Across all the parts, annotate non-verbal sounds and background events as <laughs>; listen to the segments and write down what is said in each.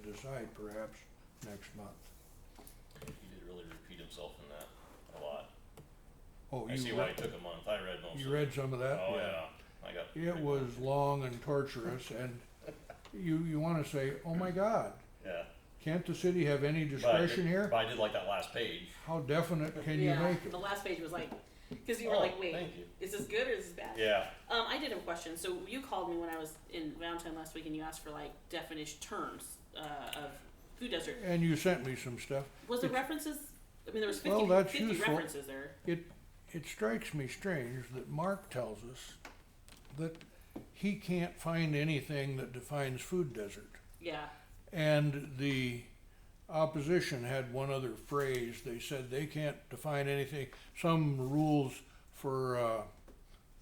decide perhaps next month. He did really repeat himself in that a lot. Oh, I see you why it read, took a month. I read most you of read some of it. that? Oh yeah. I got It pretty- was long and torturous and you, you wanna say, oh my God, Yeah. can't the city have any But I did- discretion here? But I did like that last page. How definite can you yeah, make it? the last page was like, because you were Oh, like, wait, Thank you. is this good or is this bad? Yeah. Um, I did have a question. So you called me when I was in Valentine last week, and you asked for like definition terms uh, of food desert. And you sent me some stuff. Was there It's- references? I mean, there was 50, Well, that's 50 useful. references there. It, it strikes me strange that Mark tells us that he can't find anything that defines food desert. Yeah, And the opposition had one other phrase. They said they can't define anything, some rules for uh,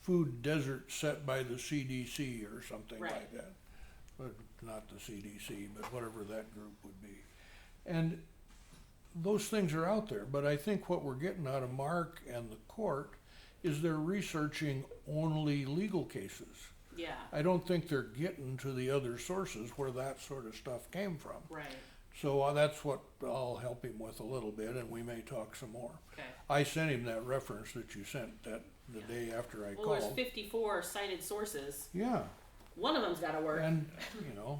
food desert set by the CDC or something Right. like that. But not the CDC, but whatever that group would be. And those things are out there, but I think what we're getting out of Mark and the court is they're researching only legal cases. yeah, I don't think they're getting to the other sources where that sort of stuff came from. right. So uh, that's what I'll help him with a little bit, and we may talk some more. Okay. I sent him that reference that you sent that the Yeah. day after I Well, there's called. 54 cited sources. Yeah, One of them's got to work. and, you know,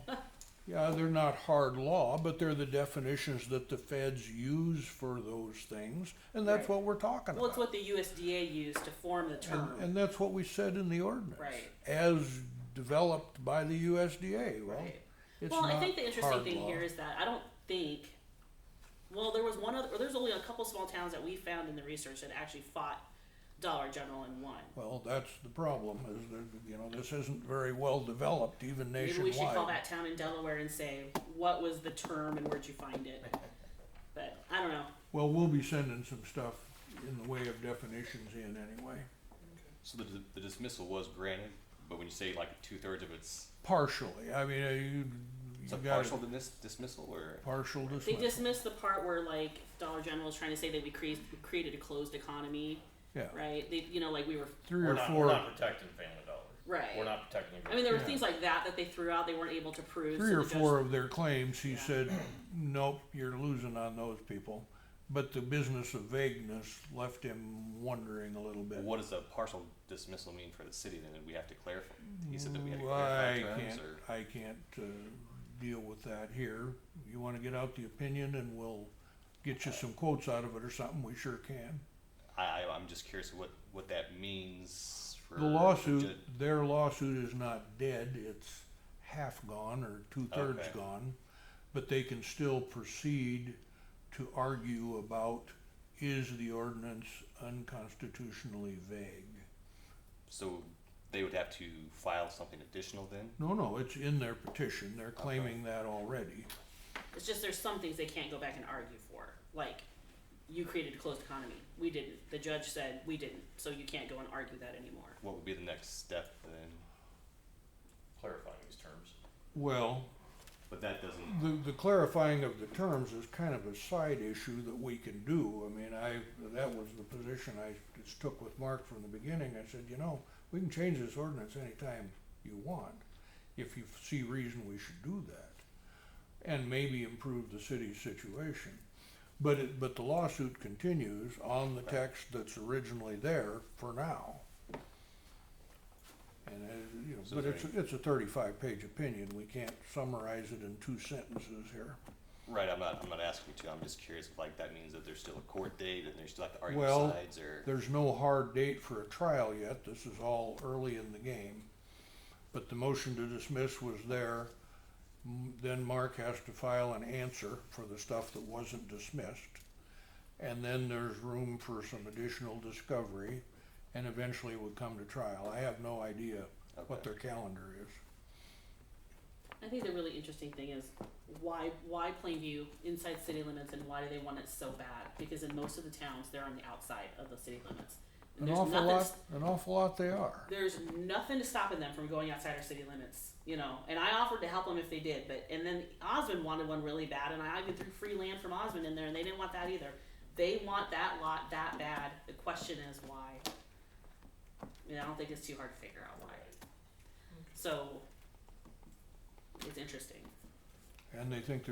yeah, they're not hard law, but they're the definitions that the feds use for those things, and that's Right. what we're talking well, it's about. what the USDA used to form the term. And, and that's what we said in the ordinance. Right. As developed by the USDA, well, right. it's well, not I think the interesting hard thing law. here is that I don't think. Well, there was one other. Or there's only a couple small towns that we found in the research that actually fought Dollar General and won. Well, that's the problem, is that, you know, this isn't very well developed even Maybe we nationwide. should call that town in Delaware and say what was the term and where'd you find <laughs> it. But I don't know. Well, we'll be sending some stuff in the way of definitions in anyway, So the, the dismissal was granted, but when you say like two thirds of it's, partially, I mean, uh, you, it's you a got partial dis- dismissal or? partial They dismissal, dismissed the part where like Dollar General was trying to say that we created created a closed economy, yeah, right? They you know like we were three We're or not, we're four, not protecting family dollars. right. We're not protecting. the I mean there were Yeah. things like that that they threw out. They weren't able to prove. three so or the judge- four of their claims, he Yeah. said, nope, you're losing on those people. But the business of vagueness left him wondering a little bit. What does a partial dismissal mean for the city then? Did we have to clarify? He said that we had to Ooh, I clarify terms can't, or? I can't, uh, deal with that here. You wanna get out the opinion and we'll get you some quotes out of it or something, we sure can. I, I, I'm just curious what, what that means for. The lawsuit, their lawsuit is not dead, it's half gone or two-thirds Okay. gone. But they can still proceed to argue about, is the ordinance unconstitutionally vague? So they would have to file something additional then? No, no, it's in their petition, they're claiming that already. It's just there's some things they can't go back and argue for. Like you created a closed economy. We didn't. The judge said we didn't. So you can't go and argue that anymore. What would be the next step then? Clarifying these terms. Well, But that doesn't. The, the clarifying of the terms is kind of a side issue that we can do. I mean, I, that was the position I just took with Mark from the beginning. I said, you know, we can change this ordinance anytime you want, if you see reason we should do that. And maybe improve the city's situation. But it, but the lawsuit continues on the text that's originally there for now. And, uh, you know, So but there it's, it's a thirty-five page opinion, we can't summarize it in two sentences here. Right, I'm not, I'm not asking you to, I'm just curious if like that means that there's still a court date and there's still like the argue Well, sides or? There's no hard date for a trial yet, this is all early in the game. But the motion to dismiss was there, M- then Mark has to file an answer for the stuff that wasn't dismissed. And then there's room for some additional discovery, and eventually it would come to trial. I have no idea what Okay. their calendar is. I think the really interesting thing is why why Plainview inside city limits and why do they want it so bad? Because in most of the towns, they're on the outside of the city limits. And An there's awful nothing. lot, an awful lot they are. There's nothing stopping them from going outside our city limits, you know. And I offered to help them if they did, but and then Osmond wanted one really bad, and I even threw free land from Osmond in there, and they didn't want that either. They want that lot that bad. The question is why. I, mean, I don't think it's too hard to figure out why. So it's interesting. And they think they're